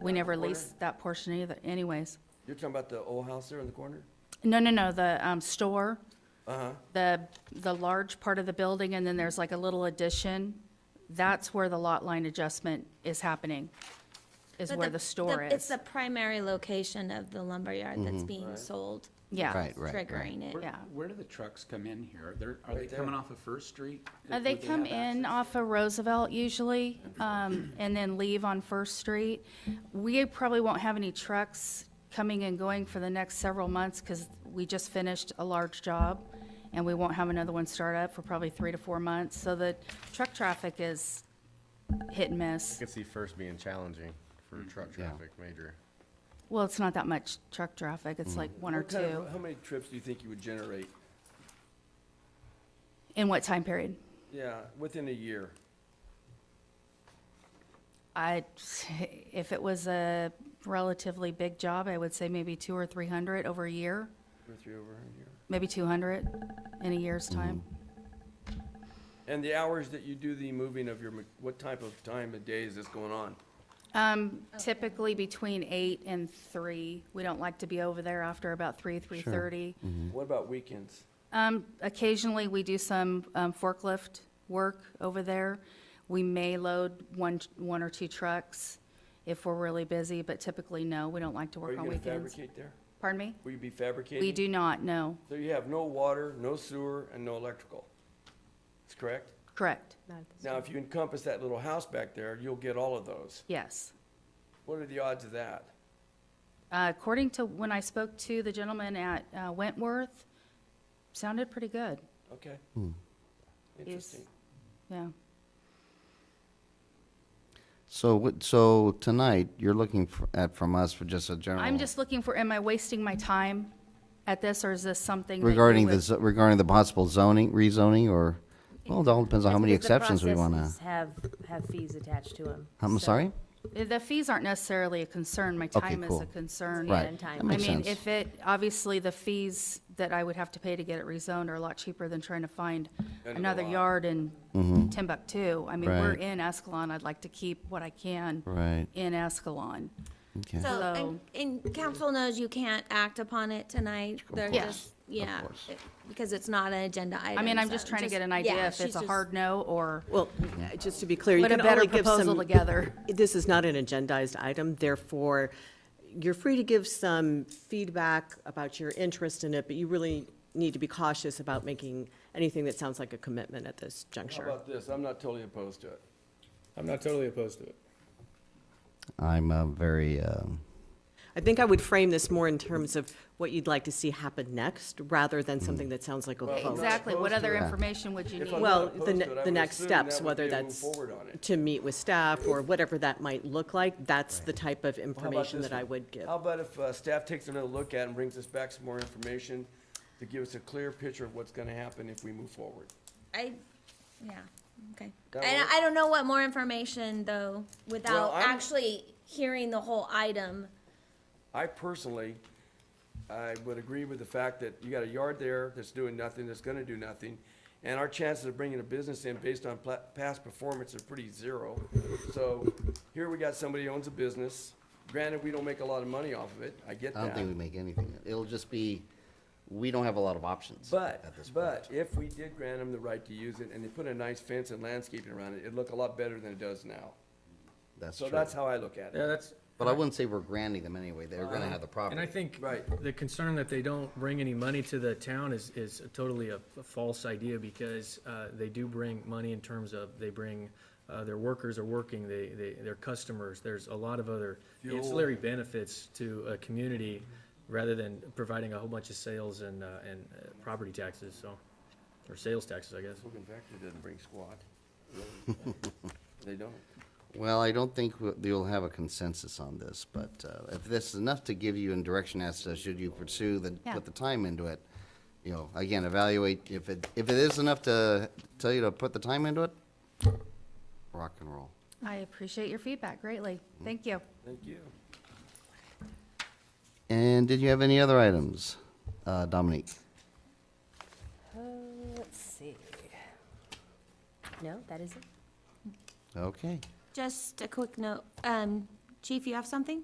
We the never corner? leased that portion either anyways. You're talking about the old house there in the corner? No, no, no, the, um, store, Uh-huh. the, the large part of the building, and then there's like a little addition. That's where the lot line adjustment is happening, is But where the store It's is. the primary location of the lumberyard that's being Right. sold. Yeah. Mm-hmm. Right, right, right. Triggering it. Where- Yeah. Where do the trucks come in here? They're, are they Right there. coming off of First Street? Uh, They Would come have in access? off of Roosevelt usually, um, and then leave on First Street. We probably won't have any trucks coming and going for the next several months because we just finished a large job, and we won't have another one start up for probably three to four months. So the truck traffic is hit and I miss. could see first being challenging for Mm-hmm. truck traffic, major. Well, it's not that much truck traffic. It's like one or What kind of- two. How many trips do you think you would generate? In what time period? Yeah, within a year. I, if it was a relatively big job, I would say maybe two or 300 over a year. Two or three over a year. maybe 200 in a year's time. And the hours that you do the moving of your, ma- what type of time of day is this going on? Um, typically between 8 and 3. We don't like to be over there after about 3, 3:30. What about weekends? Um, occasionally, we do some um, forklift work over there. We may load one, one or two trucks if we're really busy, but typically, no, we don't like to Are work you on gonna weekends. fabricate there? Pardon me? Will you be fabricating? We do not, no. So you have no water, no sewer, and no electrical. That's correct? Correct. Now, if you encompass that little house back there, you'll get all of those. Yes. What are the odds of that? Uh, according to when I spoke to the gentleman at uh, Wentworth, sounded pretty good. Okay. Is- Interesting. Yeah. So, what- so tonight, you're looking for- at, from us for just a general. I'm just looking for, am I wasting my time at this, or is this something? that you Regarding the, would- zo- regarding the possible zoning, rezoning, or, well, it all depends on how That's many because the exceptions we want to. processes Have, have fees attached to them. I'm sorry? The fees aren't necessarily a concern, my Okay, time is a cool. concern. Right. and- time. That makes I mean, sense. if it, obviously, the fees that I would have to pay to get it rezoned are a lot cheaper than trying to find Another another lot. yard in Timbuktu. I mean, we're Mm-hmm. Right. in Escalon, I'd like to keep what I can Right. in Escalon. Okay. So, Hello. and, and council knows you can't act upon it tonight. They're course, just, yeah, course. it- because it's not an agenda item. I mean, I'm so just trying to get an idea yeah, if she's it's a just- hard no, or Well, just to be clear, you put a can only better give proposal some, together. this is not an agendized item, therefore, you're free to give some feedback about your interest in it, but you really need to be cautious about making anything that sounds like a commitment at this How juncture. about this? I'm not totally opposed to it. I'm not totally opposed to it. I'm uh, very, um, I think I would frame this more in terms of what you'd like to see happen next, rather than something that sounds like a Well, vote. Exactly, what opposed to other it. information would you If need? I'm not Well, opposed the, to ne- it, I the would next assume steps, that would whether be a move that's Forward on it. to meet with staff or whatever that might look like, that's the type of Well, how about information this that I one? would give. How about if uh, staff takes another look at it and brings us back some more information to give us a clear picture of what's gonna happen if we move forward? I, yeah, okay. That And work? I don't know what more information, though, without I'm- actually hearing the whole item. I personally, I would agree with the fact that you got a yard there that's doing nothing, that's gonna do nothing, and our chances of bringing a business in based on pla- past performance are pretty zero. So here we got somebody who owns a business. Granted, we don't make a lot of money off of it. I get that. I don't think we make anything. It'll just be, we don't have a lot of options. But, at this point. but if we did grant them the right to use it and they put a nice fence and landscaping around it, it'd look a lot better than it does now. That's So true. that's how I look at Yeah, it. that's, But I wouldn't say we're granting them anyway. They're Uh, gonna have the property. and I think Right. the concern that they don't bring any money to the town is, is totally a a false idea because uh, they do bring money in terms of, they bring, uh, their workers are working, they, they, their customers, there's a lot of other Fuel. ancillary benefits to a community rather than providing a whole bunch of sales and, uh, and uh, property taxes, so, or sales taxes, I guess. Logan Factory doesn't bring squat. They don't. Well, I don't think w- you'll have a consensus on this, but uh, if this is enough to give you in direction as to should you pursue the, Yeah. put the time into it, you know, again, evaluate, if it, if it is enough to tell you to put the time into it, rock and roll. I appreciate your feedback greatly, thank you. Thank you. And did you have any other items, uh, Dominique? uh, Let's see. No, that isn't? Okay. Just a quick note, um, Chief, you have something?